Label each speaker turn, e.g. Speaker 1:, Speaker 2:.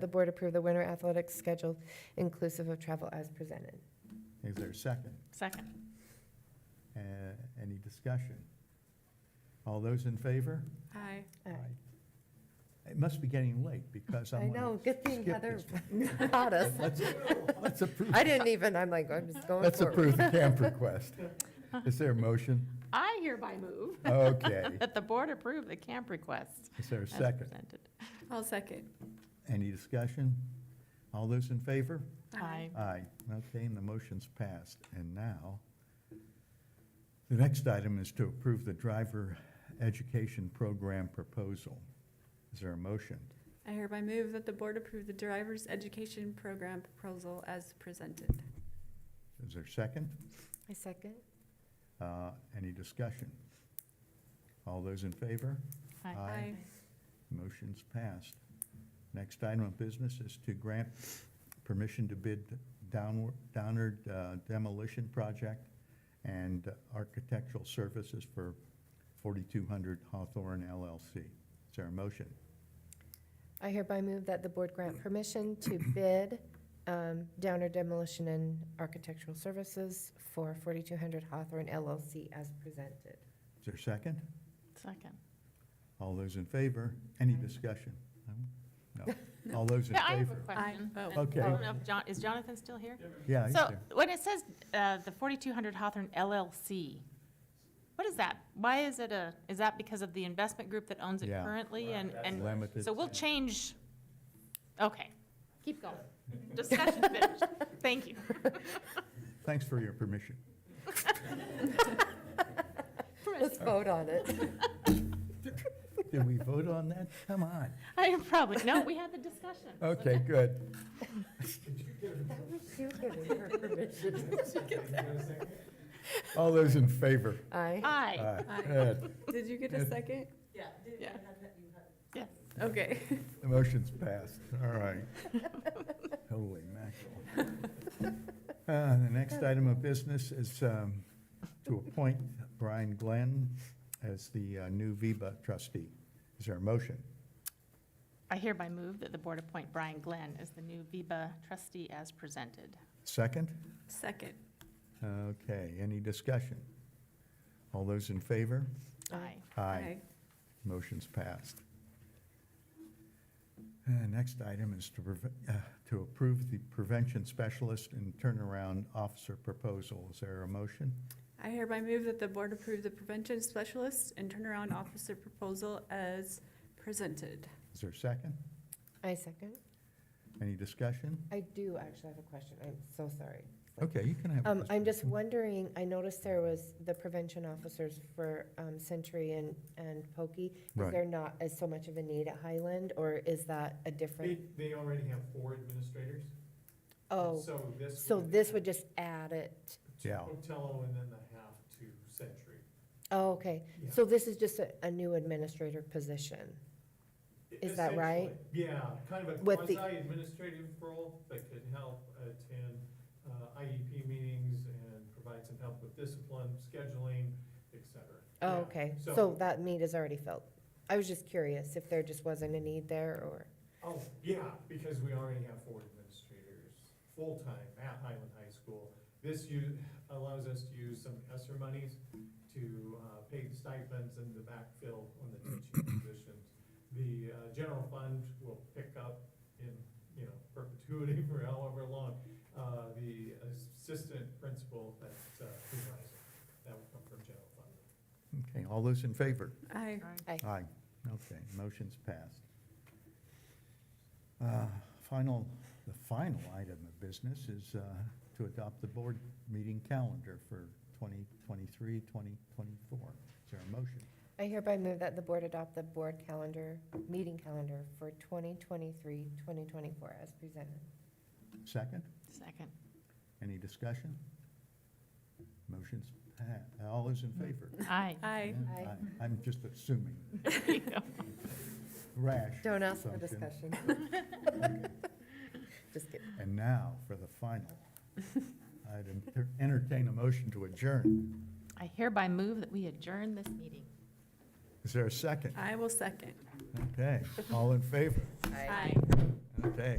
Speaker 1: The board approve the winter athletics schedule inclusive of travel as presented.
Speaker 2: Is there a second?
Speaker 3: Second.
Speaker 2: Uh, Any discussion? All those in favor?
Speaker 3: Aye.
Speaker 1: Aye.
Speaker 2: Aye. It must be getting late because
Speaker 1: I
Speaker 2: I'm gonna
Speaker 1: know, good thing
Speaker 2: skip
Speaker 1: Heather
Speaker 2: this one.
Speaker 1: caught us.
Speaker 2: Let's let's approve,
Speaker 1: I didn't even, I'm like, I'm just going
Speaker 2: let's
Speaker 1: forward.
Speaker 2: approve the camp request. Is there a motion?
Speaker 3: I hereby move
Speaker 2: Okay.
Speaker 3: that the board approve the camp request
Speaker 2: Is there a
Speaker 3: as
Speaker 2: second?
Speaker 3: presented.
Speaker 4: I'll second.
Speaker 2: Any discussion? All those in favor?
Speaker 3: Aye.
Speaker 2: Aye. Okay, and the motion's passed. And now, the next item is to approve the driver education program proposal. Is there a motion?
Speaker 4: I hereby move that the board approve the driver's education program proposal as presented.
Speaker 2: Is there a second?
Speaker 1: I second.
Speaker 2: Uh, Any discussion? All those in favor?
Speaker 3: Aye.
Speaker 2: Aye. Motion's passed. Next item of business is to grant permission to bid downward- Downard uh, demolition project and architectural services for 4200 Hawthorne LLC. Is there a motion?
Speaker 1: I hereby move that the board grant permission to bid um, Downer Demolition and Architectural Services for 4200 Hawthorne LLC as presented.
Speaker 2: Is there a second?
Speaker 3: Second.
Speaker 2: All those in favor? Any discussion? No? No. All those in
Speaker 3: Yeah, I have a
Speaker 2: favor?
Speaker 3: question.
Speaker 4: Aye.
Speaker 3: And
Speaker 2: Oh.
Speaker 3: I
Speaker 2: Okay.
Speaker 3: don't know if Jon- Is Jonathan still here?
Speaker 2: Yeah, he's
Speaker 3: So
Speaker 2: there.
Speaker 3: when it says uh, the 4200 Hawthorne LLC, what is that? Why is it a, is that because of the investment group that owns it
Speaker 2: Yeah.
Speaker 3: currently? And, and
Speaker 2: limited.
Speaker 3: so we'll change, okay, keep going. Discussion finished. Thank you.
Speaker 2: Thanks for your permission.
Speaker 1: Let's vote on it.
Speaker 2: Did we vote on that? Come on.
Speaker 3: I am probably, no, we had the discussion.
Speaker 2: Okay, good.
Speaker 1: That was you giving her permission.
Speaker 2: All those in favor?
Speaker 1: Aye.
Speaker 3: Aye.
Speaker 2: Aye.
Speaker 4: Aye.
Speaker 2: Good.
Speaker 4: Did you get a second?
Speaker 3: Yeah. Yes.
Speaker 4: Okay.
Speaker 2: The motion's passed, all right. Holy mackerel. Uh, The next item of business is um, to appoint Brian Glenn as the uh, new VIBA trustee. Is there a motion?
Speaker 3: I hereby move that the board appoint Brian Glenn as the new VIBA trustee as presented.
Speaker 2: Second?
Speaker 4: Second.
Speaker 2: Okay, any discussion? All those in favor?
Speaker 3: Aye.
Speaker 2: Aye. Motion's passed. Uh, Next item is to, preve- uh, to approve the prevention specialist and turnaround officer proposal. Is there a motion?
Speaker 4: I hereby move that the board approve the prevention specialist and turnaround officer proposal as presented.
Speaker 2: Is there a second?
Speaker 1: I second.
Speaker 2: Any discussion?
Speaker 1: I do actually have a question. I'm so sorry.
Speaker 2: Okay, you can have. a
Speaker 1: Um, I'm just
Speaker 2: discussion.
Speaker 1: wondering, I noticed there was the prevention officers for, um, Century and, and Pokey. Is
Speaker 2: Right.
Speaker 1: there not as so much of a need at Highland, or is that a
Speaker 5: They,
Speaker 1: different?
Speaker 5: they already have four administrators.
Speaker 1: Oh,
Speaker 5: So this.
Speaker 1: so
Speaker 5: would-
Speaker 1: this would just add it.
Speaker 2: Yeah.
Speaker 5: Otello and then the half to Century.
Speaker 1: Oh, okay.
Speaker 5: Yeah.
Speaker 1: So this is just a, a new administrator position. Is that right?
Speaker 5: Essentially, Yeah, kind of a
Speaker 1: With the-
Speaker 5: quasi-administrative role that can help attend uh, IEP meetings and provide some help with discipline, scheduling, et cetera.
Speaker 1: Oh,
Speaker 5: Yeah,
Speaker 1: okay. So
Speaker 5: So,
Speaker 1: that need is already filled. I was just curious if there just wasn't a need there, or,
Speaker 5: oh, yeah, because we already have four administrators, full-time at Highland High School. This u- allows us to use some ESSER monies to uh, pay the stipends and the backfill on the teaching positions. The uh, general fund will pick up in, you know, perpetuity for however long, uh, the assistant principal that uh, supervisor, that will come from general fund.
Speaker 2: Okay, all those in favor?
Speaker 4: Aye.
Speaker 2: Aye. Okay, motion's passed. Uh, Final, the final item of business is uh, to adopt the board meeting calendar for 2023, 2024. Is there a motion?
Speaker 1: I hereby move that the board adopt the board calendar, meeting calendar for 2023, 2024 as presented.
Speaker 2: Second?
Speaker 3: Second.
Speaker 2: Any discussion? Motion's passed. All those in favor?
Speaker 3: Aye.
Speaker 4: Aye.
Speaker 2: Yeah,
Speaker 1: Aye.
Speaker 2: aye. I'm just assuming.
Speaker 3: There you go.
Speaker 2: Rash.
Speaker 1: Don't ask for
Speaker 2: assumption.
Speaker 1: discussion. Just kidding.
Speaker 2: And now for the final. I'd enter- entertain a motion to adjourn.
Speaker 3: I hereby move that we adjourn this meeting.
Speaker 2: Is there a second?
Speaker 4: I will second.
Speaker 1: Uh.
Speaker 2: Okay, all in favor?
Speaker 1: Aye.
Speaker 4: Aye.
Speaker 2: All Okay.